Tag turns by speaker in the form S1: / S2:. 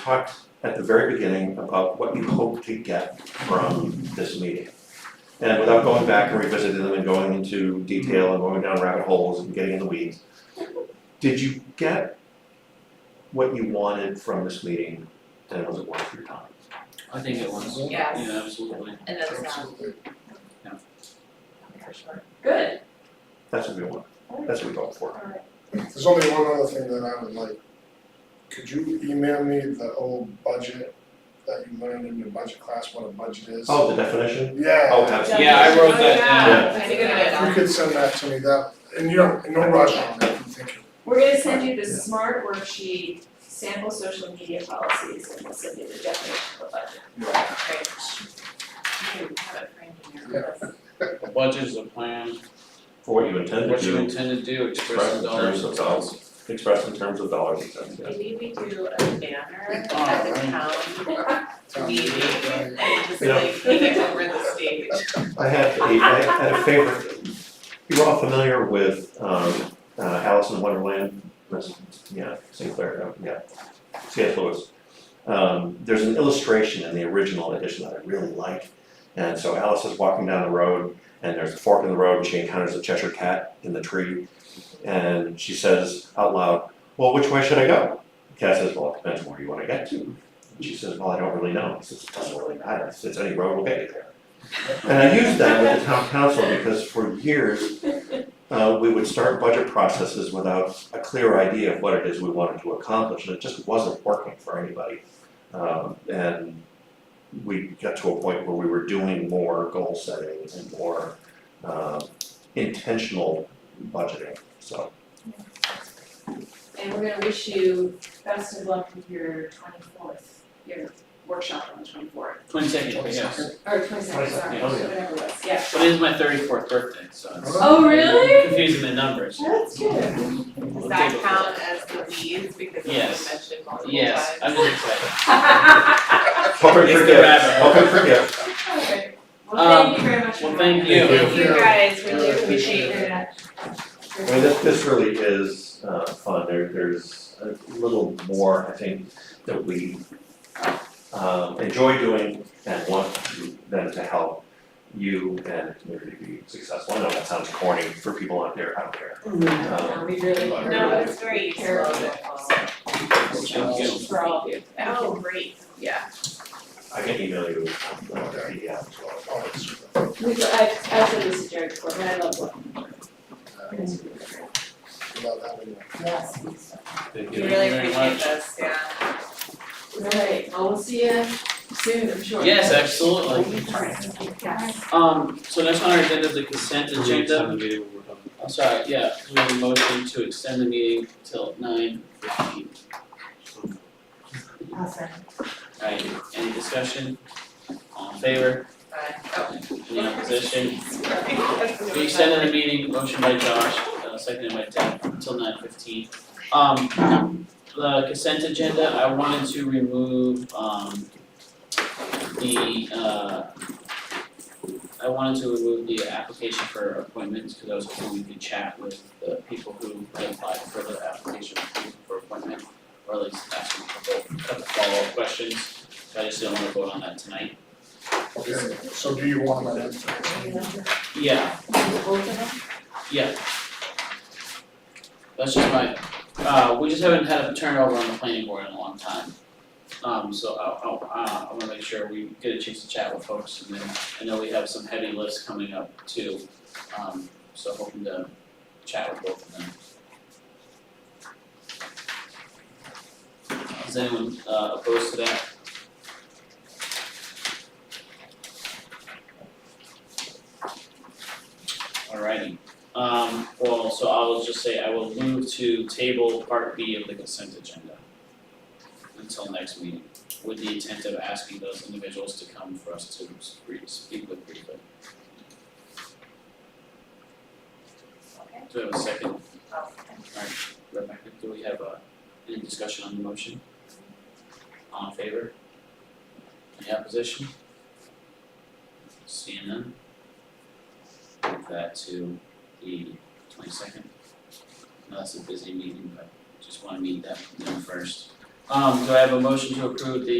S1: talked at the very beginning about what you hope to get from this meeting. And without going back and revisiting them and going into detail and going down rabbit holes and getting in the weeds, did you get what you wanted from this meeting and was it worth your time?
S2: I think it was, yeah,
S3: Yes.
S2: absolutely.
S3: And that's not
S4: Absolutely.
S3: for sure. Good.
S1: That's what we want, that's what we hope for.
S4: There's only one other thing that I would like. Could you email me the old budget that you learned in your budget class, what a budget is?
S1: Oh, the definition?
S4: Yeah.
S1: Oh, absolutely.
S2: Yeah, I wrote that
S1: down.
S3: I think I
S4: If you could send that to me, that, and you don't, no rush on it, if you think
S3: We're gonna send you the smart worksheet, sample social media policies, and we'll send you the definition of a budget.
S4: it.
S3: Right. You can have it framed in your office.
S2: A budget is a plan,
S1: For what you intend to
S2: what you
S1: do,
S2: intend to do,
S1: express
S2: express
S1: in
S2: the dollars.
S1: terms of dollars, express in terms of dollars and cents, yeah.
S5: Maybe we do a banner
S2: Oh,
S5: at the
S2: right.
S5: town
S4: Sounds
S5: meeting
S4: good, yeah.
S5: and just
S1: You know-
S5: like hang it over the stage.
S1: I had a, I had a favorite, you're all familiar with, um, uh, Alice in Wonderland, Miss- yeah, Sinclair, no, yeah, C.S. Lewis. Um, there's an illustration in the original edition that I really like, and so Alice is walking down the road, and there's a fork in the road, and she encounters a Cheshire Cat in the tree, and she says out loud, well, which way should I go? The Cat says, well, it depends where you wanna get to, and she says, well, I don't really know, he says, it doesn't really matter, it's any road will get you there. And I used that with the town council because for years, uh, we would start budget processes without a clear idea of what it is we wanted to accomplish, and it just wasn't working for anybody. Um, and we got to a point where we were doing more goal setting and more, um, intentional budgeting, so.
S3: And we're gonna wish you best of luck with your twenty-fourth, your workshop on the twenty-fourth,
S2: Twenty second, yes,
S3: or twenty-second, sorry,
S2: 22nd,
S1: oh, yeah.
S3: whatever it was, yeah.
S2: but it is my thirty fourth birthday, so it's
S3: Oh, really?
S2: confusing the numbers.
S3: That's good.
S2: We'll take
S5: Does that
S2: it.
S5: count as the leads because it's been
S2: Yes.
S5: mentioned multiple times?
S2: Yes, I'm just excited.
S1: Hope I
S2: It's the
S1: forget,
S2: rabbit.
S1: hope I forget.
S3: Okay. Well, thank you very much.
S2: Um, well,
S3: for
S2: thank
S3: that.
S2: you.
S3: Thank you
S4: Yeah.
S3: guys, really
S4: Yeah, I
S3: appreciate
S4: appreciate it.
S3: that.
S1: I mean, this, this really is, uh, fun, there, there's a little more, I think, that we, um, enjoy doing and want to- them to help you and the community be successful, I know that sounds corny for people out there, I don't care.
S5: Mm-hmm.
S1: Um,
S3: We really.
S4: But-
S3: No,
S5: No, it's great.
S3: Care of it.
S2: Thank you.
S3: for all of you.
S5: Oh, great, yeah.
S1: I can email you, um, uh, the PDF as well.
S4: Oh, it's-
S3: We, I, I said this to Jared before, but I love working.
S4: without having to-
S3: Yes.
S2: Thank
S5: We
S2: you
S5: really
S2: very
S5: appreciate
S2: much.
S5: this, yeah.
S3: Right, well, we'll see you soon, I'm sure.
S2: Yes, absolutely.
S3: Yes.
S2: Um, so next on our agenda is the consent agenda. I'm sorry, yeah, we have a motion to extend the meeting till nine fifteen.
S3: Awesome.
S2: Alright, any discussion? All in favor?
S5: But,
S2: Any opposition?
S5: oh.
S2: We extended the meeting, motion by Josh, uh, seconded by Deb, until nine fifteen. Um, the consent agenda, I wanted to remove, um, the, uh, I wanted to remove the application for appointments, because I was hoping we could chat with the people who had applied for the application for appointment, or at least ask them a couple, couple follow-up questions, but I just didn't wanna vote on that tonight.
S4: Okay, so do you want that information?
S2: Yeah, Yeah. That's just my, uh, we just haven't had a turnover on the planning board in a long time. Um, so I, I, uh, I wanna make sure we get a chance to chat with folks and then I know we have some heavy lists coming up too. Um, so hoping to chat with both of them. Is anyone, uh, opposed to that? Alrighty, um, well, so I will just say I will move to table part B of the consent agenda until next meeting, with the intent of asking those individuals to come for us to re- speak with briefly.
S5: Okay.
S2: Do we have a second? Alright, Rebecca, do we have uh any discussion on the motion? All in favor? Any opposition? Seeing none. Move that to the twenty second. That's a busy meeting, but just wanna meet that, them first. Um, do I have a motion to approve the